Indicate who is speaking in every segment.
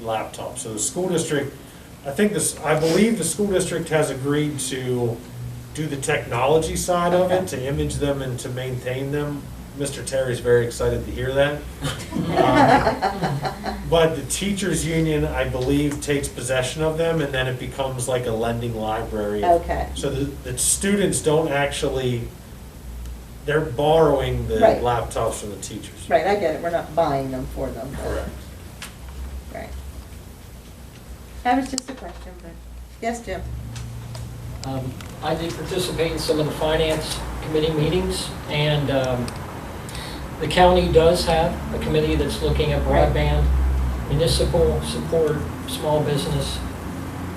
Speaker 1: laptop. So the school district, I think this, I believe the school district has agreed to do the technology side of it, to image them and to maintain them. Mr. Terry's very excited to hear that. Um, But the teachers' union, I believe, takes possession of them and then it becomes like a lending library.
Speaker 2: Okay.
Speaker 1: So the, the students don't actually, they're borrowing the
Speaker 2: Right.
Speaker 1: laptops from the teachers.
Speaker 2: Right, I get it, we're not buying them for them. but-
Speaker 1: Correct.
Speaker 2: Right. That was just a question, but, yes, Jim?
Speaker 3: Um, I did participate in some of the finance committee meetings, and um, the county does have a committee that's looking at broadband, municipal support, small business,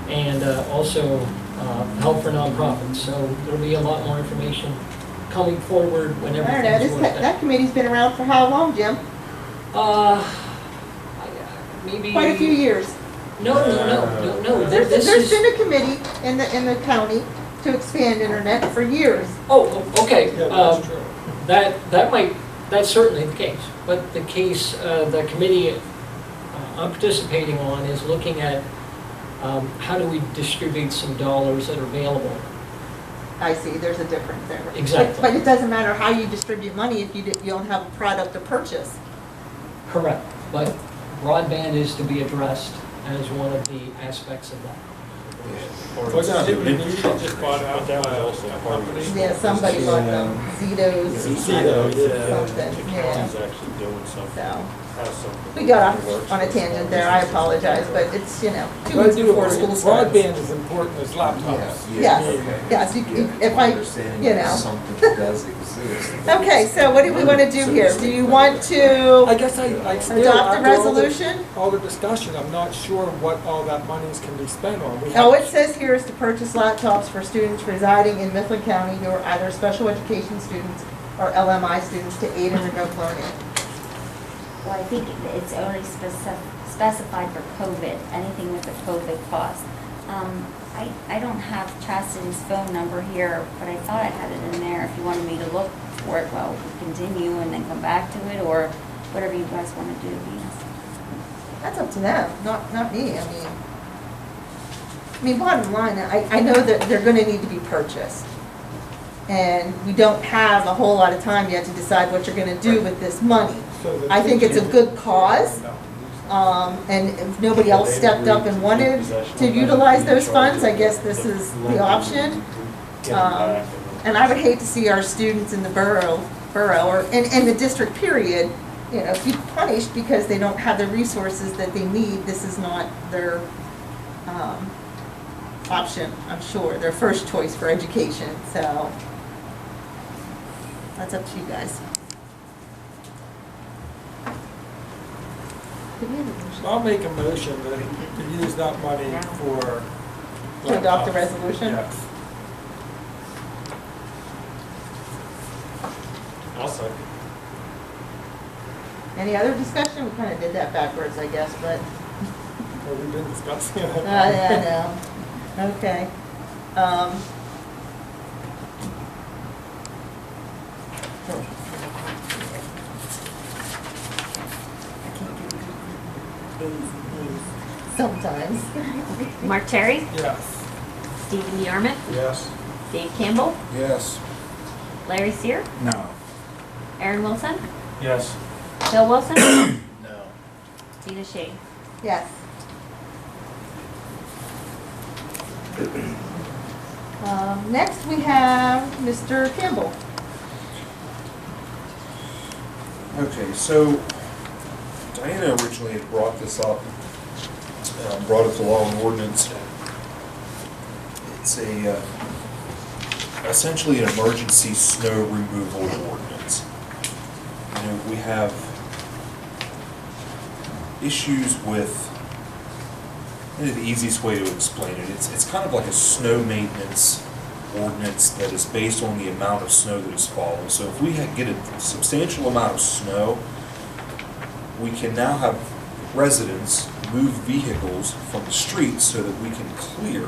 Speaker 3: and uh, also uh, help for nonprofits. So there'll be a lot more information coming forward
Speaker 2: I
Speaker 3: whenever.
Speaker 2: don't know,
Speaker 3: things
Speaker 2: this,
Speaker 3: work out.
Speaker 2: that that committee's been around for how long, Jim?
Speaker 3: Uh, I- maybe.
Speaker 2: Quite a few years.
Speaker 3: No, no, no, no,
Speaker 1: Uh,
Speaker 3: no.
Speaker 2: There's,
Speaker 3: Oh, this
Speaker 2: there's
Speaker 3: is-
Speaker 2: been a committee in the, in the county to expand internet for years.
Speaker 3: Oh, o- okay.
Speaker 1: Yeah,
Speaker 3: um,
Speaker 1: that's true.
Speaker 3: That, that might, that's certainly the case, but the case, uh, the committee uh, I'm participating on is looking at um, how do we distribute some dollars that are available?
Speaker 2: I see, there's a difference there. But-
Speaker 3: Exactly.
Speaker 2: But it doesn't matter how you distribute money if you, di- you don't have a product to purchase.
Speaker 3: Correct. But broadband is to be addressed as one of the aspects of that.
Speaker 4: Wasn't it Nvidia that
Speaker 1: just bought out that also a company?
Speaker 2: Yeah, somebody bought them, Zito's, Something,
Speaker 1: The
Speaker 2: yeah.
Speaker 1: county's actually doing something,
Speaker 2: so.
Speaker 1: has something.
Speaker 2: We got off on a tangent there, I apologize, but it's, you know, two
Speaker 4: But
Speaker 2: weeks
Speaker 4: do
Speaker 2: before
Speaker 4: it.
Speaker 2: school starts.
Speaker 4: Broadband is important as laptops.
Speaker 2: Yes, yes, you- you- if I- you know.
Speaker 5: Something does exist.
Speaker 2: Okay, so what do we want to do here? Do you want
Speaker 4: I
Speaker 2: to
Speaker 4: guess I, I still.
Speaker 2: adopt the
Speaker 4: after all the-
Speaker 2: resolution?
Speaker 4: All the discussion, I'm not sure what all that monies can be spent on. We
Speaker 2: No,
Speaker 4: have-
Speaker 2: Oh, it says here is to purchase laptops for students residing in Mifflin County who are either special education students or LMI students to aid in remote learning.
Speaker 6: Well, I think it's only speci- specified for COVID, anything with the COVID cost. Um, I, I don't have Chastity's phone number here, but I thought I had it in there if you wanted me to look for it while we continue and then come back to it, or whatever you guys want to do, Venus.
Speaker 2: That's up to them, not, not me, I mean. I mean, bottom line, I, I know that they're gonna need to be purchased. And we don't have a whole lot of time yet to decide what you're gonna do with this money.
Speaker 4: So the
Speaker 2: I think it's a
Speaker 4: teacher-
Speaker 2: good cause, um, and if nobody else stepped up and wanted to utilize those funds, I guess this is the option. Um, And I would hate to see our students in the borough, borough, or in, in the district period, you know, be punished because they don't have the resources that they need. This is not their, um, option, I'm sure, their first choice for education, so. That's up to you guys.
Speaker 4: I'll make a motion to, to use that money for.
Speaker 2: To adopt the
Speaker 4: laptops.
Speaker 2: resolution?
Speaker 4: Yes.
Speaker 1: Also,
Speaker 2: Any other discussion? We kind of did that backwards, I guess, but,
Speaker 4: Well, we've been discussing
Speaker 2: uh,
Speaker 4: it.
Speaker 2: yeah, I know. Okay. Um, Sometimes.
Speaker 7: Mark Terry,
Speaker 4: Yes.
Speaker 7: Stephen Yarmouth,
Speaker 1: yes.
Speaker 7: Dave Campbell,
Speaker 5: Yes.
Speaker 7: Larry Sear,
Speaker 5: No.
Speaker 7: Aaron Wilson,
Speaker 1: Yes.
Speaker 7: Bill Wilson,
Speaker 5: No.
Speaker 7: Dina Shea.
Speaker 2: Yes. Um, Next, we have Mr. Campbell.
Speaker 5: Okay, so Diana originally had brought this up, uh, brought it to law and ordinance. It's a, uh, essentially an emergency snow removal ordinance. You know, we have issues with, I think the easiest way to explain it, it's, it's kind of like a snow maintenance ordinance that is based on the amount of snow that is falling. So if we ha- get a substantial amount of snow, we can now have residents move vehicles from the street so that we can clear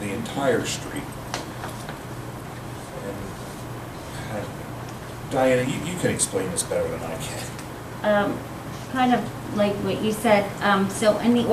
Speaker 5: the entire street. And, uh, Diana, you, you can explain this better than I can.
Speaker 6: Um, Kind of like what you said, um, so in the